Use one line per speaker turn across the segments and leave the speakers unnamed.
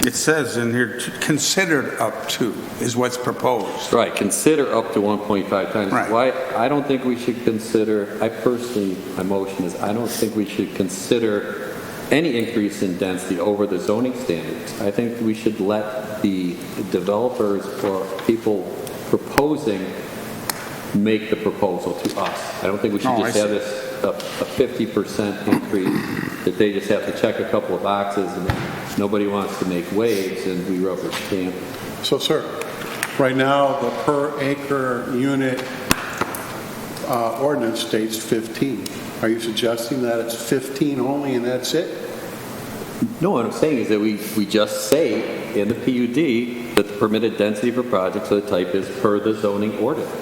It says in here, t- considered up to is what's proposed.
Right, consider up to 1.5 times.
Right.
Why, I don't think we should consider, I personally, my motion is, I don't think we should consider any increase in density over the zoning standards. I think we should let the developers or people proposing make the proposal to us. I don't think we should
Oh, I
just have this, a a 50% increase, that they just have to check a couple of boxes, and nobody wants to make waves, and we rubber stamp
So, sir, right now, the per acre unit uh, ordinance states 15. Are you suggesting that it's 15 only and that's it?
No, what I'm saying is that we, we just say in the PUD that the permitted density for projects of the type is per the zoning ordinance.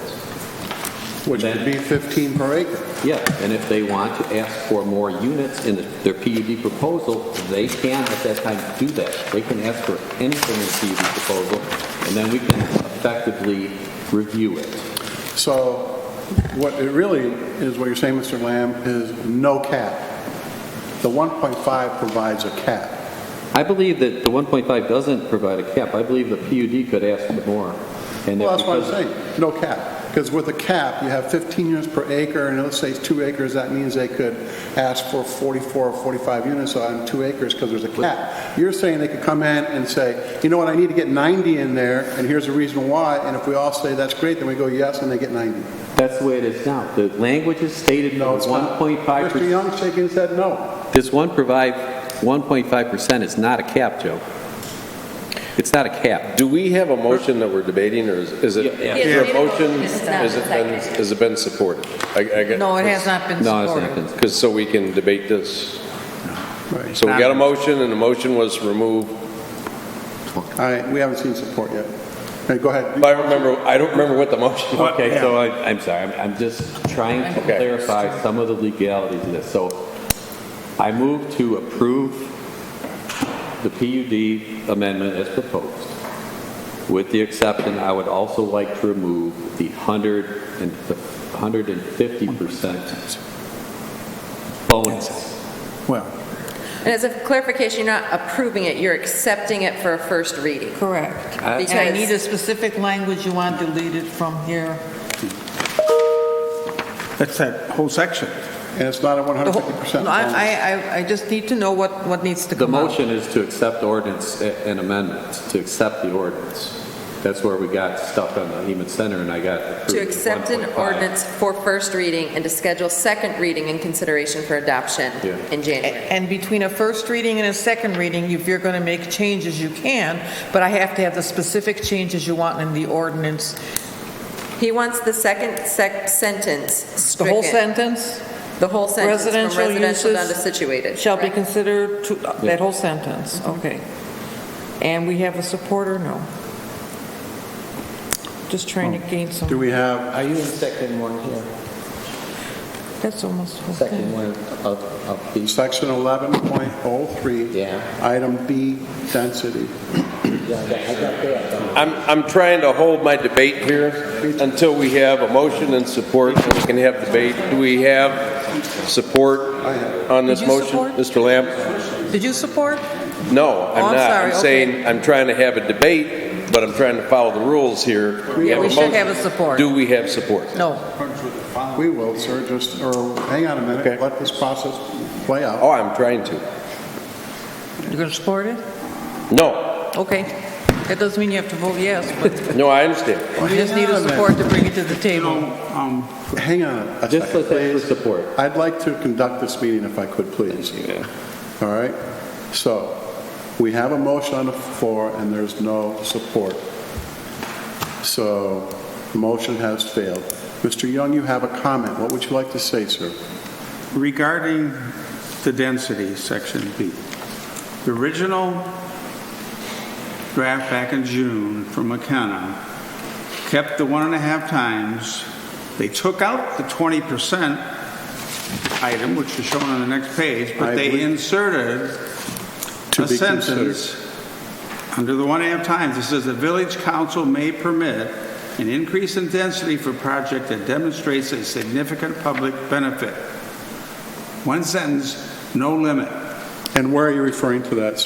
Which would be 15 per acre.
Yeah, and if they want to ask for more units in their PUD proposal, they can at that time do that. They can ask for anything in the PUD proposal, and then we can effectively review it.
So what it really is, what you're saying, Mr. Lamb, is no cap. The 1.5 provides a cap.
I believe that the 1.5 doesn't provide a cap. I believe the PUD could ask for more. and that
Well, that's what I'm
because-
saying, no cap. Because with a cap, you have 15 units per acre, and let's say it's two acres, that means they could ask for 44 or 45 units on two acres because there's a cap. You're saying they could come in and say, you know what, I need to get 90 in there, and here's the reason why, and if we all say that's great, then we go yes, and they get 90.
That's the way it is now. The language is stated in
No, it's not.
1.5%.
Mr. Young shaking his head no.
This one provide, 1.5% is not a cap, Joe. It's not a cap.
Do we have a motion that we're debating, or is- is it,
Yeah, yeah.
is there a
Yeah.
motion?
It's not
Has it been,
seconded.
has it been supported?
No, it has not been
No, it's
supported.
not. cons-
Because, so we can debate this.
Right.
So we got a motion, and the motion was removed.
All right, we haven't seen support yet. All right, go ahead.
I don't remember, I don't remember what the motion was.
Okay, so I- I'm sorry, I'm- I'm just trying to
Okay.
clarify some of the legalities of this. So I move to approve the PUD amendment as proposed. With the exception, I would also like to remove the 100 and the 150% bonus.
Well,
And as a clarification, you're not approving it, you're accepting it for a first reading.
Correct.
I-
And I
Because-
need a specific language you want deleted from here.
That's that whole section.
and it's not a
The whole-
150%
No, I,
bonus.
I- I, I just need to know what, what needs to
The
come out.
motion is to accept ordinance a- and amendments, to accept the ordinance. That's where we got stuck on the Hemet Center, and I got approved
To
at
accept an
1.5.
ordinance for first reading and to schedule second reading and consideration for adoption
Yeah.
in January.
And between a first reading and a second reading, if you're going to make changes, you can, but I have to have the specific changes you want in the ordinance.
He wants the second sec- sentence
The whole
stricken.
sentence
The whole sentence, from
Residential
residential down
uses
to situated.
shall be
Correct.
considered, to- uh, that whole sentence, okay. And we have a supporter, no? Just trying to gain
Do
some,
we have
Are you in second one here?
that's almost the whole
Second
thing.
one of, of these?
Section 11.03.
Yeah.
Item B, density.
Yeah, I got that.
I'm, I'm trying to hold my debate here until we have a motion and support, and we can have debate. Do we have support on this
Did you
motion?
support?
Mr. Lamb?
Did you support?
No,
Oh,
I'm
I'm
not.
sorry,
I'm
okay.
saying, I'm trying to have a debate, but I'm trying to follow the rules here.
Yeah,
have
we
a
should have
motion.
a support.
Do we have support?
No.
We will, sir, just, or hang on a minute,
Okay.
let this process play out.
Oh, I'm trying to.
You're going to support it?
No,
Okay. That doesn't mean you have to vote yes, but
no, I understand.
we just need a support to bring it to the table.
Um, Hang on a
Just let's
second,
ask for
please.
support.
I'd like to conduct this meeting if I could, please. All right? So, we have a motion on the floor and there's no support. So, the motion has failed. Mr. Young, you have a comment. What would you like to say, sir?
Regarding the density, section B, the original draft back in June from McKenna kept the one and a half times. They took out the 20% item, which is shown on the next page,
I
but they
believe-
inserted
To
a
be considered.
sentence under the one and a half times. It says the village council may permit an increase in density for project that demonstrates a significant public benefit. One sentence, no limit.
And where are you referring to that,